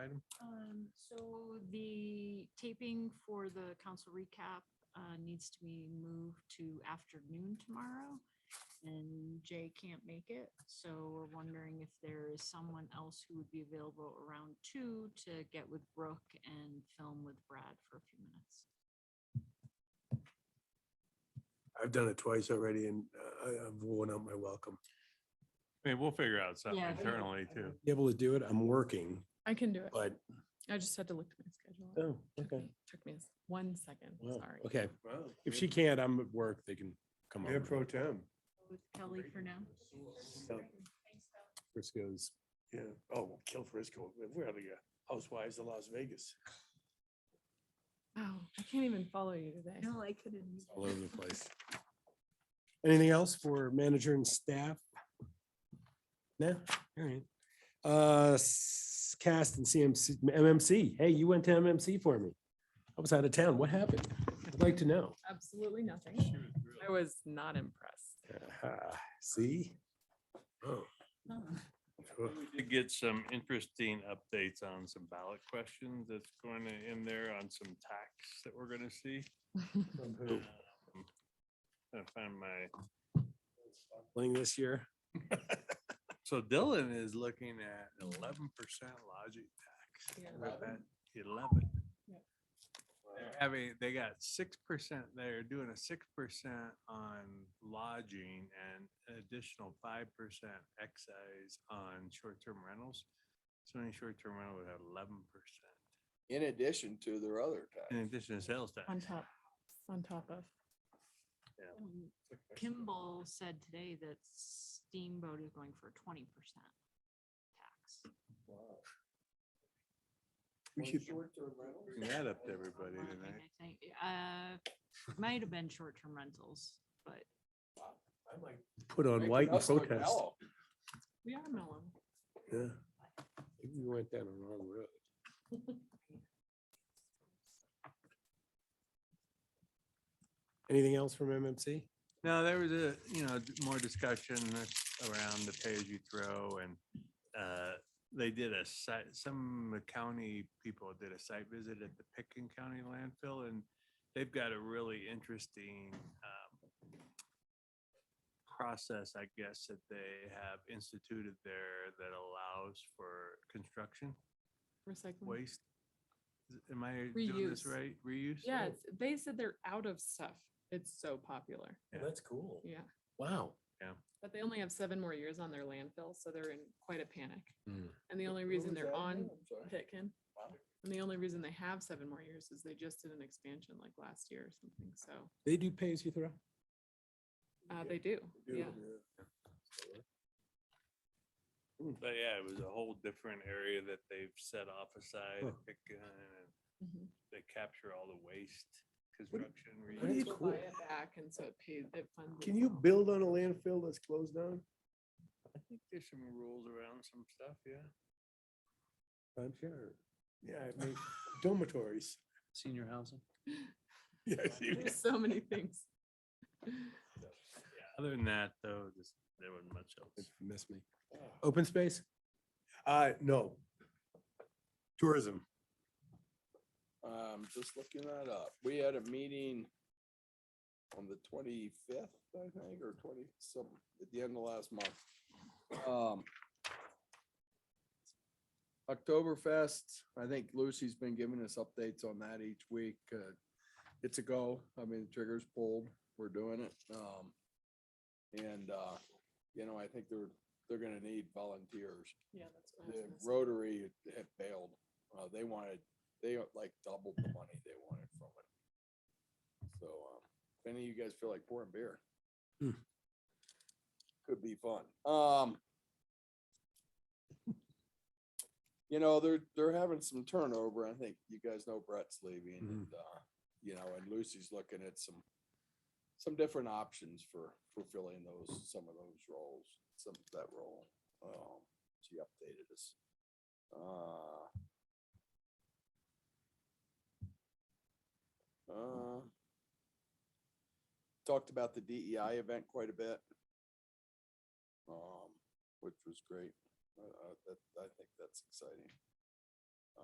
Um, taping for the council recap uh, needs to be moved to afternoon tomorrow. And Jay can't make it, so we're wondering if there is someone else who would be available around two to get with Brooke and film with Brad for a few minutes. I've done it twice already and uh, I, I've worn out my welcome. I mean, we'll figure out something Yeah, I think- internally too. Be Able to do it, I'm working, I can do it. but. I just had to look at my schedule. Oh, Took me- Took me s- one second, Wow, sorry. Okay, if she can't, I'm at work, they can come Mayor over. pro tem. With Kelly for now. Frisco's. Yeah. Oh, we'll kill Frisco. We're out of here. Housewives of Las Vegas. Oh, I can't even follow you today. No, I couldn't. all over the place. Anything else for manager and staff? No, all right. Uh, s- cast and CMC, MMC. Hey, you went to MMC for me. I was out of town. What happened? I'd like to know. Absolutely nothing. I was not impressed. Uh-huh. See? Oh, sure. We did get some interesting updates on some ballot questions that's going to in there on some tax that we're going to see. Who? Um, Trying to find my. Playing this year. So Dylan is looking at eleven percent logic tax. Yeah. Look at that, Eleven. Yeah. They're Having, they got six percent, they're doing a six percent on lodging and an additional five percent excise on short-term rentals. So any short-term rental would have eleven percent in addition to their other in tax. addition to sales tax. On top, on top of. Um, Kimball said today that Steamboat is going for twenty percent tax. We should- Bring that up to everybody online, tonight. I think, uh, might have been short-term rentals, but Put on Making white and us look protest. mellow. We are melon. Yeah. Maybe We went down the wrong road. Anything else from MMC? No, there was a, you know, d- more discussion around the pay as you throw and uh, they did a site, some county people did a site visit at the Picken County landfill and they've got a really interesting um, process, I guess, that they have instituted there that allows for construction Recycling. waste. Is- Am I doing this Mm-hmm. Reuse. right? Reuse? Yeah, it's- they said they're out of stuff. It's so popular. Yeah. That's cool. Yeah. Wow. But they only have seven more years on their landfill, so they're in quite a panic. Hmm. And the only What reason was they're that on again? I'm sorry. Pitkin, and the only reason they have seven more years is they just did an expansion like last year or something, so, They do pay as you throw? uh, they do, yeah. But yeah, it was a whole different area that they've set off aside, Huh. Picken and Mhm. they capture all the waste construction. what do reuse. you- People cool. buy it back, and so it pays, it funds. Can you itself. build on a landfill that's closed down? I think there's some rules around some stuff, yeah. I'm sure. Yeah, I mean, dormitories. Senior housing. Yes, you- There's so many things. Other than that, though, just, there wasn't much else. Miss me. Open space? Uh, no, Tourism. Um, just looking that up. We had a meeting on the twenty-fifth, I think, or twenty, some, at the end of last month. Um. Oktoberfest, I think Lucy's been giving us updates on that each week. Uh, it's a go. I mean, the trigger's pulled. We're doing it. Um. And, uh, you know, I think they're, they're gonna need volunteers. Yeah, that's. what I was the gonna say. Rotary had failed. Uh, they wanted, they like doubled the money they wanted from it. So, um, if any of you guys feel like pouring beer. Hmm. Could be fun. Um. You know, they're, they're having some turnover. I think you guys know Brett's leaving and, uh, you know, and Lucy's looking at some, some different options for, for filling those, some of those roles, some, that role. Um, she updated us. Uh, uh, Talked about the DEI event quite a bit. Um, which was great. Uh, uh, that, I think that's exciting.